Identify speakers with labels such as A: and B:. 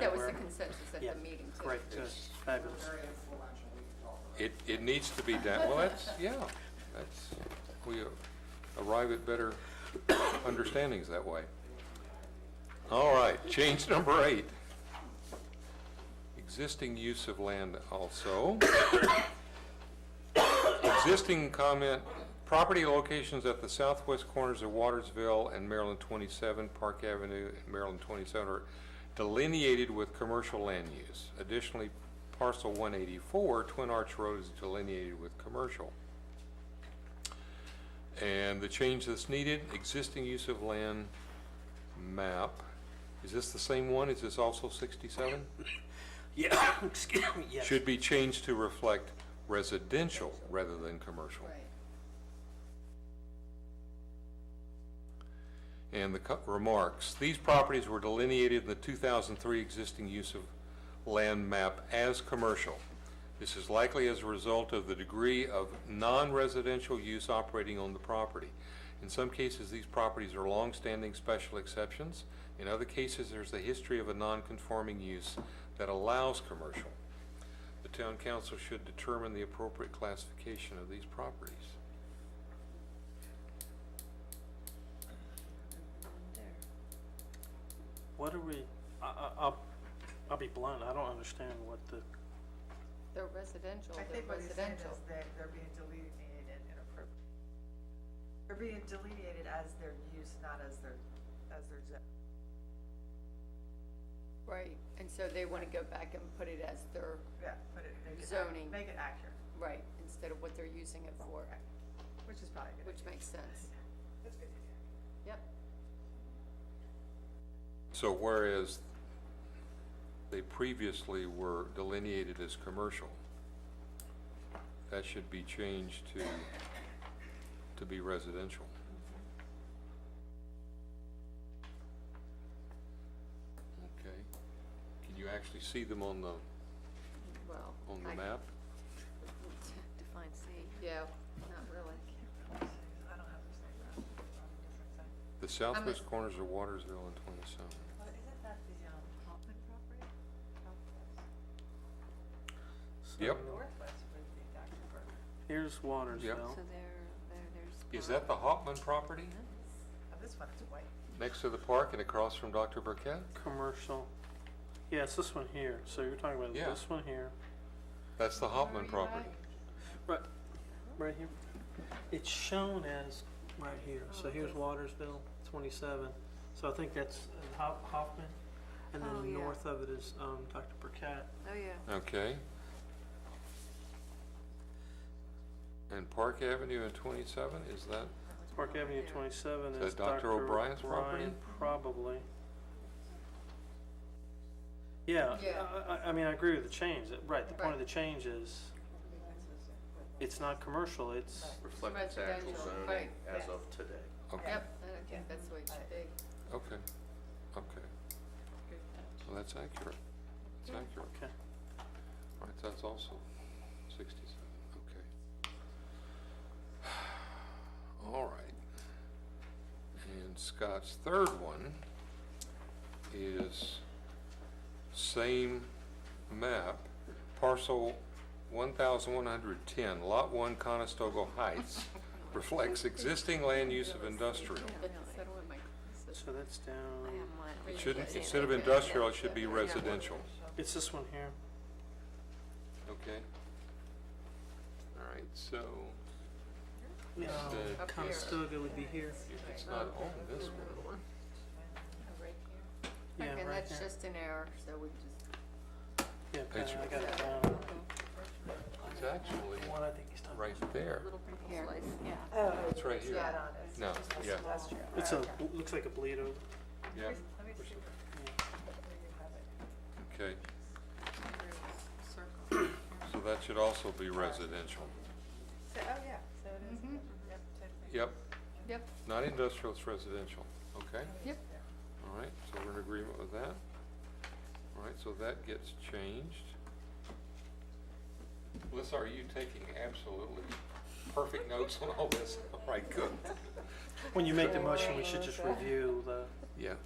A: that was the
B: where-
A: consensus at
B: Yeah,
A: the meeting too.
B: Great, good, fabulous.
C: It, it needs to be done, well, that's, yeah, that's, we arrive at better understandings that way. All right, change number eight. Existing use of land also. Existing comment, property locations at the southwest corners of Watersville and Maryland 27, Park Avenue and Maryland 27 are delineated with commercial land use. Additionally, parcel 184, Twin Arch Road is delineated with commercial. And the change that's needed, existing use of land map. Is this the same one? Is this also 67?
B: Yeah, excuse me, yes.
C: Should be changed to reflect residential rather than commercial.
A: Right.
C: And the co- remarks, these properties were delineated in the 2003 existing use of land map as commercial. This is likely as a result of the degree of non-residential use operating on the property. In some cases, these properties are long-standing special exceptions. In other cases, there's a history of a non-conforming use that allows commercial. The town council should determine the appropriate classification of these properties.
B: What are we, I, I, I'll, I'll be blunt, I don't understand what the,
A: They're residential,
D: I
A: they're
D: think what you're saying
A: Oh, residential.
D: is that they're being delineated inappropriately. They're being delineated as their use, not as their, as their zone.
A: Right, and so they want to go back and put it as their,
D: Yeah, put it, make it. ac-
A: Zoning.
D: Make it accurate,
A: right, instead of what they're using it for,
D: which is probably a good.
A: which makes sense.
D: That's good.
A: Yep,
C: So whereas they previously were delineated as commercial, that should be changed to, to be residential. Okay. Can you actually see them on the,
A: well.
C: on the
A: I-
C: map?
E: Define C.
A: Yeah, not really.
D: I don't have this thing around. I'm Uh-huh. a different side.
C: The southwest corners of Watersville and twenty-seven.
D: Well, isn't that the, um, Hoffman property?
C: Yep.
D: Northwest with the Dr. Burger.
B: here's Watersville.
E: So there, there, there's.
C: Is that the Hoffman property,
A: Uh-huh.
D: Oh, this one is white.
C: next to the park and across from Dr. Burkett?
B: Commercial. Yeah, it's this one here, so you're talking about
C: Yeah.
B: this one here,
C: That's the Hoffman property.
B: right, right here. It's shown as right here, so here's Watersville, twenty-seven, so I think that's uh, Hoff- Hoffman. And
E: Oh,
B: then
E: yeah.
B: north of it is, um, Dr. Burkett.
E: Oh, yeah.
C: Okay. And Park Avenue and 27, is that,
B: Park Avenue
E: Yeah.
B: twenty-seven
C: Is that
B: is
C: Dr.
B: Dr.
C: O'Brien's property?
B: O'Brien, probably. Yeah,
A: Yeah.
B: I, I, I mean, I agree with the change, that- right, the point of
A: Right.
B: the change is, it's not commercial, it's,
F: reflect its actual
A: Residential,
F: zoning
A: right.
F: as of today.
C: okay,
A: Yep, I don't think that's the way it should be.
C: okay, okay. Well, that's accurate. That's accurate.
B: okay.
C: All right, that's also 67, okay. All right. And Scott's third one is same map, parcel 1,110, Lot 1, Conestoga Heights, reflects existing land use of industrial.
A: That's- I don't want my- this is-
B: So that's down,
E: I have mine.
C: It shouldn't, instead of industrial, it should be residential,
B: it's this one here,
C: okay? All right, so...
B: no,
C: Instead-
A: here.
C: Up
B: Conestoga would be here,
C: If it's not on this one,
B: yeah,
A: Okay,
B: right
A: that's
B: there,
A: just an error, so we just,
B: yeah,
C: It's-
B: kinda, I got it down,
C: it's actually
B: one I think he's talking.
C: right there.
E: Little purple slice, yeah.
D: Oh,
C: It's right here.
D: not on it.
C: No, yeah,
B: It's a, looks like a bleed over,
C: yeah,
D: Let me see where you have it.
C: okay. So that should also be residential.
D: So, oh, yeah, so it is. Yep, totally.
C: Yep,
A: yep,
C: not industrial, it's residential, okay?
A: yep.
C: All right, so we're in agreement with that. All right, so that gets changed. Melissa, are you taking absolutely perfect notes Oh, on all this? All right, good.
B: when you make the motion, we should just review the,
C: Yeah,